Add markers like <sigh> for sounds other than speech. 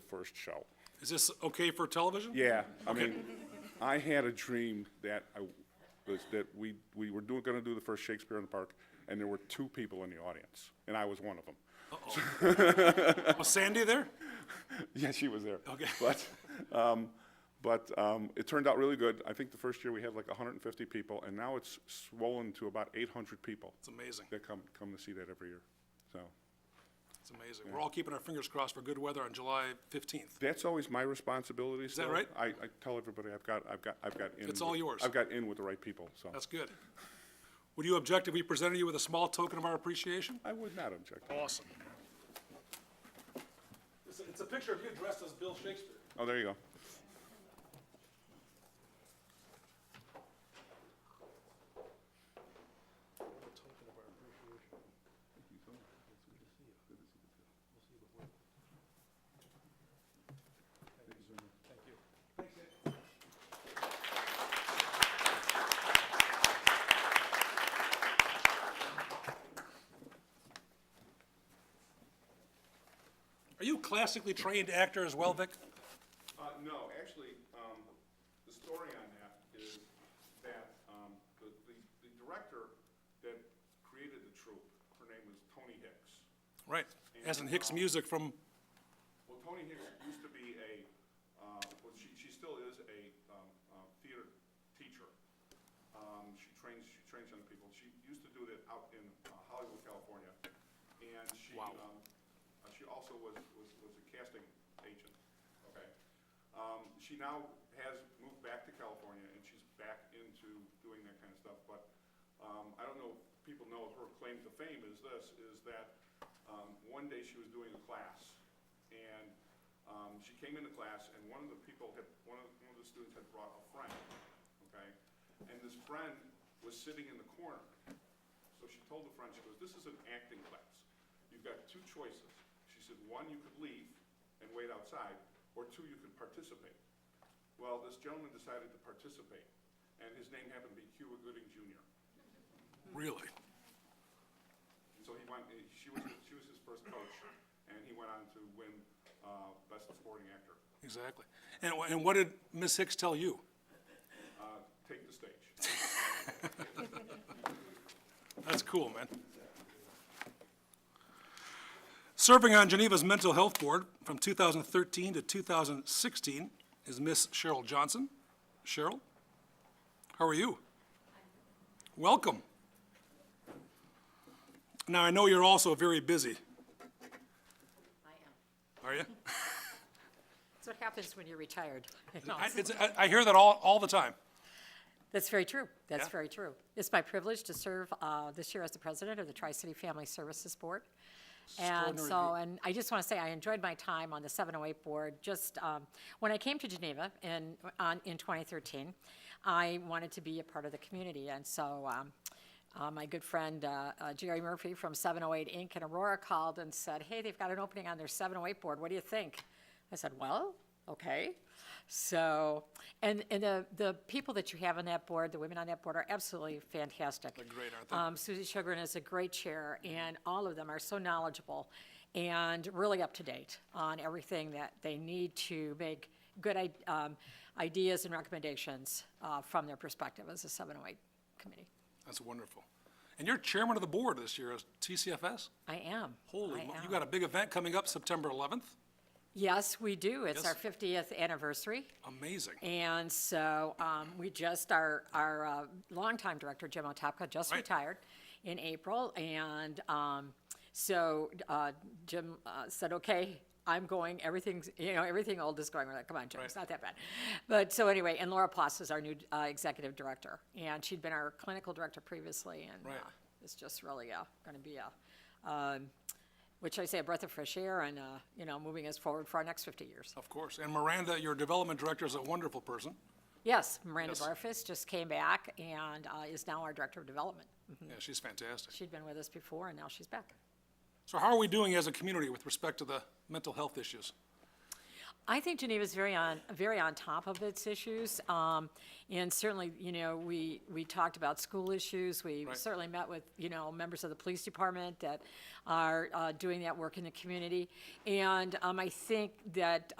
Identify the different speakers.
Speaker 1: first show.
Speaker 2: Is this okay for television?
Speaker 1: Yeah, I mean, I had a dream that I, was that we, we were doing, gonna do the first Shakespeare in the Park, and there were two people in the audience, and I was one of them.
Speaker 2: Was Sandy there?
Speaker 1: <laughs> Yeah, she was there.
Speaker 2: Okay.
Speaker 1: But, um, but, um, it turned out really good. I think the first year we had like hundred and fifty people, and now it's swollen to about eight hundred people
Speaker 2: It's amazing.
Speaker 1: that come, come to see that every year. So,
Speaker 2: It's amazing. We're all keeping our fingers crossed for good weather on July 15th.
Speaker 1: that's always my responsibility Is
Speaker 2: that right?
Speaker 1: I, I tell everybody I've got, I've got, I've got in.
Speaker 2: It's all
Speaker 1: with-
Speaker 2: yours.
Speaker 1: I've got in with the right people, so.
Speaker 2: That's good. Would you object if we presented you with a small token of our appreciation?
Speaker 1: I would not object.
Speaker 2: Awesome. It's a, it's a picture of you dressed as Bill Shakespeare.
Speaker 1: Oh, there you go.
Speaker 2: Are you a classically trained actor as well, Vic?
Speaker 1: Uh, no, actually, um, the story on that is that, um, the, the, the director that created the troupe, her name was Tony Hicks.
Speaker 2: Right, as in Hicks music from,
Speaker 1: Well, Tony Hicks used to be a, uh, well, she, she still is a, um, uh, theater teacher. Um, she trains, she trains young people. She used to do that out in uh, Hollywood, California. And she, um, uh, she also was, was, was a casting agent, okay? Um, she now has moved back to California and she's back into doing that kind of stuff, but, um, I don't know if people know her claim to fame is this, is that, um, one day she was doing a class and um, she came into class, and one of the people had, one of, one of the students had brought a friend, okay? And this friend was sitting in the corner. So she told the friend, she goes, this is an acting class. You've got two choices. She said, one, you could leave and wait outside, or two, you could participate. Well, this gentleman decided to participate, and his name happened to be Cuba Gooding Jr.
Speaker 2: really?
Speaker 1: And so he went, eh, she was, she was his first coach, and he went on to win uh, Best Supporting Actor.
Speaker 2: Exactly. And, wh- and what did Miss Hicks tell you?
Speaker 1: Uh, take the stage.
Speaker 2: That's cool, man. Serving on Geneva's Mental Health Board from 2013 to 2016 is Miss Cheryl Johnson. Cheryl, how are you? Welcome. Now, I know you're also very busy,
Speaker 3: I am.
Speaker 2: are you?
Speaker 3: That's what happens when
Speaker 2: <laughs>
Speaker 3: you're retired.
Speaker 2: I, it's, I, I hear that all, all the time.
Speaker 3: That's very true. That's
Speaker 2: Yeah.
Speaker 3: very true. It's my privilege to serve uh, this year as the president of the Tri-City Family Services Board. And
Speaker 2: Extraordinary
Speaker 3: so, and I just want to say, I enjoyed my time on the 708 Board. Just, um, when I came to Geneva in, on, in 2013, I wanted to be a part of the community. And so, um, uh, my good friend uh, uh, Jerry Murphy from 708 Inc. in Aurora called and said, hey, they've got an opening on their 708 Board. What do you think? I said, well, okay. So, and, and the, the people that you have on that board, the women on that board are absolutely fantastic. They're
Speaker 2: great, aren't they?
Speaker 3: um, Susie Sugarman is a great chair, and all of them are so knowledgeable and really up to date on everything that they need to make good i- um, ideas and recommendations uh, from their perspective as a 708 committee.
Speaker 2: That's wonderful. And you're chairman of the board this year, as TCFS?
Speaker 3: I am.
Speaker 2: Holy,
Speaker 3: I
Speaker 2: mo- you
Speaker 3: am.
Speaker 2: got a big event coming up September 11th?
Speaker 3: Yes, we do. It's
Speaker 2: Yes.
Speaker 3: our 50th anniversary.
Speaker 2: Amazing.
Speaker 3: And so um, we just, our, our uh, longtime director, Jim Otapka, just
Speaker 2: Right.
Speaker 3: retired in April. And um, so uh, Jim uh, said, okay, I'm going, everything's, you know, everything old is going. We're like, come on, Jim, it's not that bad. But so anyway, and Laura Ploss is our new uh, executive director. And she'd been our clinical director previously. And
Speaker 2: Right.
Speaker 3: uh, it's just really going to be a, um, what should I say, a breath of fresh air and, uh, you know, moving us forward for our next 50 years.
Speaker 2: Of course. And Miranda, your development director, is a wonderful person.
Speaker 3: Yes, Miranda
Speaker 2: Yes.
Speaker 3: Barfus just came back and uh, is now our Director of Development.
Speaker 2: Yeah, she's fantastic.
Speaker 3: She'd been with us before, and now she's back.
Speaker 2: So how are we doing as a community with respect to the mental health issues?
Speaker 3: I think Geneva's very on, very on top of its issues. Um, and certainly, you know, we, we talked about school issues. We
Speaker 2: Right.
Speaker 3: certainly met with, you know, members of the police department that are uh, doing that work in the community. And um, I think that